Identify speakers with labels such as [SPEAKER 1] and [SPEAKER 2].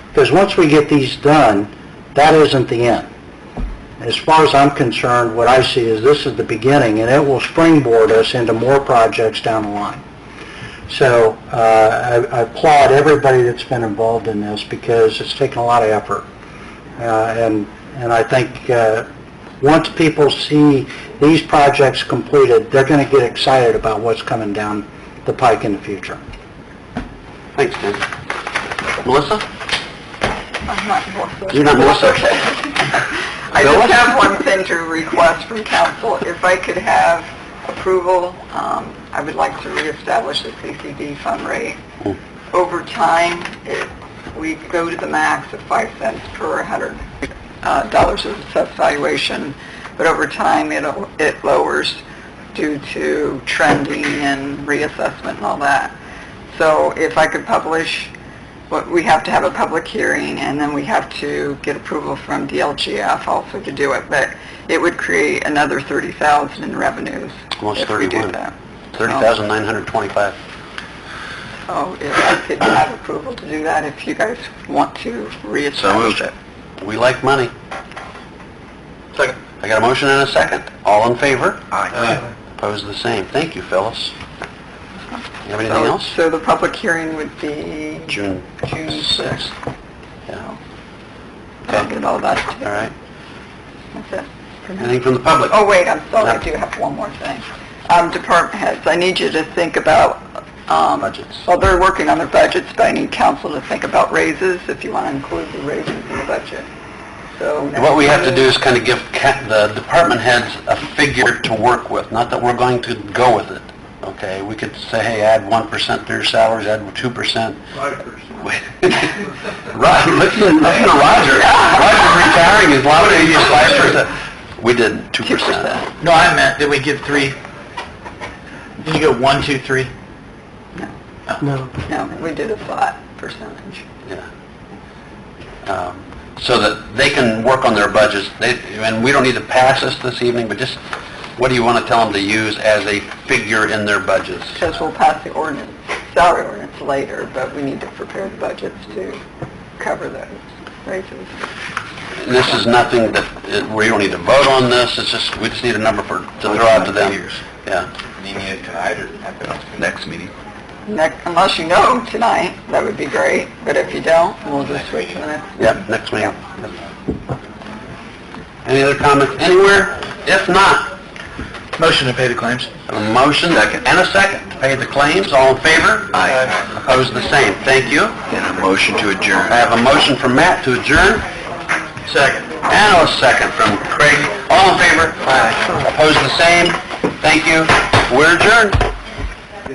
[SPEAKER 1] Because once we get these done, that isn't the end. As far as I'm concerned, what I see is this is the beginning, and it will springboard us into more projects down the line. So uh, I I applaud everybody that's been involved in this, because it's taken a lot of effort. Uh, And, and I think uh, once people see these projects completed, they're going to get excited about what's coming down the pike in the future.
[SPEAKER 2] Thanks, Ben. Melissa?
[SPEAKER 3] I'm not going to.
[SPEAKER 2] You're not Melissa?
[SPEAKER 3] I just have one thing to request from council. If I could have approval, um, I would like to reestablish the CCD fund rate. Over time, it- we go to the max of 5 cents per $100 uh, dollars of assessed valuation, but over time, it it lowers due to trending and reassessment and all that. So if I could publish, what we have to have a public hearing, and then we have to get approval from DLGF also to do it, but it would create another 30,000 in revenues
[SPEAKER 2] Almost
[SPEAKER 3] if we do
[SPEAKER 2] 31.
[SPEAKER 3] that.
[SPEAKER 2] 30,925.
[SPEAKER 3] So if I could have approval to do that, if you guys want to reestablish it.
[SPEAKER 2] We like money. Second. I got a motion and a second. All in favor? Aye. Opposed, the same. Thank you, Phyllis. You have anything
[SPEAKER 3] So-
[SPEAKER 2] else?
[SPEAKER 3] So the public hearing would be...
[SPEAKER 2] June
[SPEAKER 3] June
[SPEAKER 2] 6th. Yeah,
[SPEAKER 3] I'll get all that.
[SPEAKER 2] all right.
[SPEAKER 3] That's it.
[SPEAKER 2] Anything from the public?
[SPEAKER 3] Oh, wait, I'm sorry,
[SPEAKER 2] No.
[SPEAKER 3] I do have one more thing. Um, department heads, I need you to think about, um...
[SPEAKER 2] Budgets.
[SPEAKER 3] Well, they're working on their budgets, but I need council to think about raises, if you want to include the raises in the budget. So...
[SPEAKER 2] What we have to do is kind of give ca- the department heads a figure to work with, not that we're going to go with it, okay? We could say, hey, add 1% to your salaries, add 2%. 5%. Right, listen, listen to Roger. Roger's retiring, his lottery is 5%. We did 2%.
[SPEAKER 3] 2%.
[SPEAKER 4] No, I meant, did we give three? Did you go one, two, three?
[SPEAKER 3] No, we did a flat percentage.
[SPEAKER 2] Yeah. Um, So that they can work on their budgets, they, and we don't need to pass this this evening, but just, what do you want to tell them to use as a figure in their budgets?
[SPEAKER 3] Because we'll pass the ordinance, salary ordinance later, but we need to prepare the budgets to cover those raises.
[SPEAKER 2] This is nothing that, it- we don't need to vote on this, it's just, we just need a number for, to throw out to them. Yeah. Next meeting.
[SPEAKER 3] Next- Unless you know tonight, that would be great, but if you don't, we'll just wait till the next.
[SPEAKER 2] Yep, next meeting. Any other comments anywhere? If not,
[SPEAKER 4] Motion to pay the claims.
[SPEAKER 2] a motion and a second to pay the claims, all in favor?
[SPEAKER 4] Aye.
[SPEAKER 2] Opposed, the same, thank you.
[SPEAKER 4] And a motion to adjourn.
[SPEAKER 2] I have a motion from Matt to adjourn,
[SPEAKER 4] Second.
[SPEAKER 2] and a second from Craig, all in favor? Aye. Opposed, the same, thank you, we're adjourned.